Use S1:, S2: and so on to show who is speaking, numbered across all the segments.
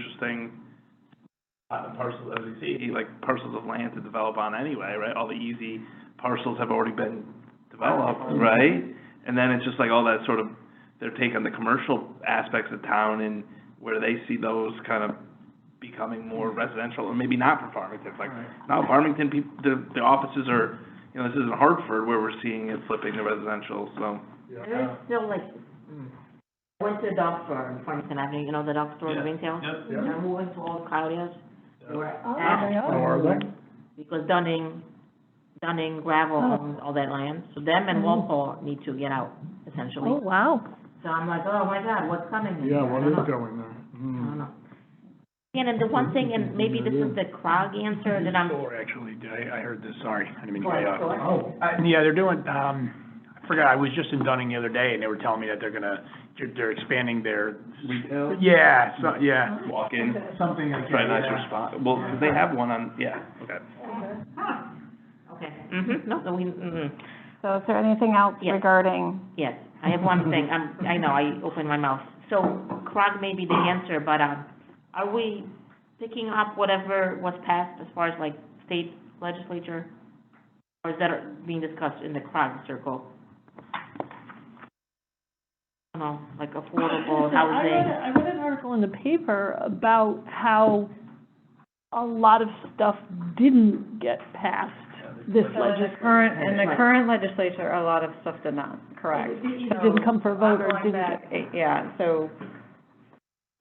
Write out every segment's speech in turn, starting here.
S1: interesting, uh, parcel, as we see, like parcels of land to develop on anyway, right? All the easy parcels have already been developed, right? And then it's just like all that sort of, their take on the commercial aspects of town and where they see those kind of becoming more residential, or maybe not for Farmington, like, now Farmington, people, the, the offices are, you know, this isn't Hartford where we're seeing it flipping to residential, so.
S2: There's
S3: Uh-huh.
S2: still like, I went to a dog store in Farmington Avenue, you know, the dog store in
S1: Yeah.
S2: Greentown?
S1: Yep.
S2: You know who went to all Claudia's? They were
S4: Oh, they
S2: asked,
S4: are.
S2: because Dunning, Dunning gravel
S4: Oh.
S2: owns all that land, so them and Walpole need to get out, essentially.
S4: Mm-hmm. Oh, wow.
S2: So I'm like, oh my God, what's coming?
S3: Yeah, what
S2: I don't
S3: is
S2: know.
S3: going there?
S2: I
S3: Hmm.
S2: don't know. And then the one thing, and maybe this is the CROG answer that I'm,
S5: Store, actually, Did I, I heard this, sorry, I didn't mean to cut you off.
S2: for,
S3: Oh,
S5: Uh, yeah, they're doing, um, I forgot, I was just in Dunning the other day, and they were telling me that they're gonna, they're- they're expanding their,
S1: Retail,
S5: yeah, so, yeah.
S1: walk-in,
S5: Something like
S1: that's probably a nicer spot, well, 'cause they have one on, yeah, okay.
S2: okay, hmm no, so we, mhm.
S4: So is there anything else
S2: Yes.
S4: regarding,
S2: Yes, I have one thing, I'm, I know, I opened my mouth. So CROG may be the answer, but, um, are we picking up whatever was passed as far as like state legislature? Or is that being discussed in the CROG circle? I don't know, like affordable
S6: I
S2: housing,
S6: read, I read an article in the paper about how a lot of stuff didn't get passed this legislature.
S7: Current, in the current legislature, a lot of stuff did not, correct? Eh,
S6: It didn't come for a vote or it didn't get.
S7: Yeah, so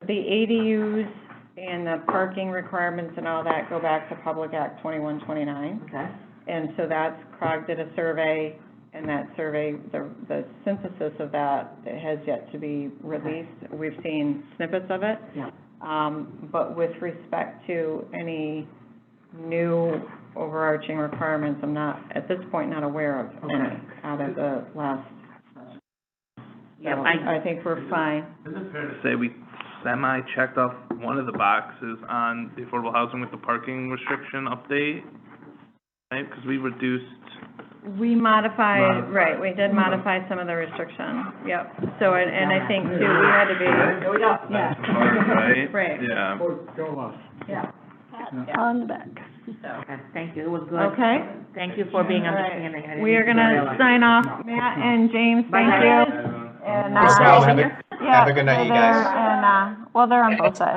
S7: the ADUs and the parking requirements and all that go back to Public Act twenty-one, twenty-nine.
S2: okay?
S7: And so that's, CROG did a survey, and that survey, the, the synthesis of that has yet to be released. We've seen snippets of it.
S2: Yeah.
S7: Um, but with respect to any new overarching requirements, I'm not, at this point, not aware of any out of the last.
S2: Yeah,
S7: so
S2: I,
S7: I think we're fine.
S1: Is it fair to say we semi-checked off one of the boxes on the affordable housing with the parking restriction update? Right, because we reduced,
S7: We modified,
S1: Modified.
S7: right, we did modify some of the restriction, yep. So, and, and I think too, we had to be,
S2: here we go.
S7: yeah.
S1: right?
S7: Right.
S1: Yeah.
S3: go off.
S6: Pat on the back.
S2: Okay, thank you, it was good.
S7: Okay?
S2: Thank you for being
S7: All right.
S2: understanding. I didn't
S7: We are
S2: realize.
S7: gonna sign off, Matt and James, thank
S2: Bye.
S7: you. And, uh,
S4: Thanks, Al.
S7: yeah,
S4: Have a good night, you guys.
S7: And, uh,
S4: and, uh, well, they're on both sides.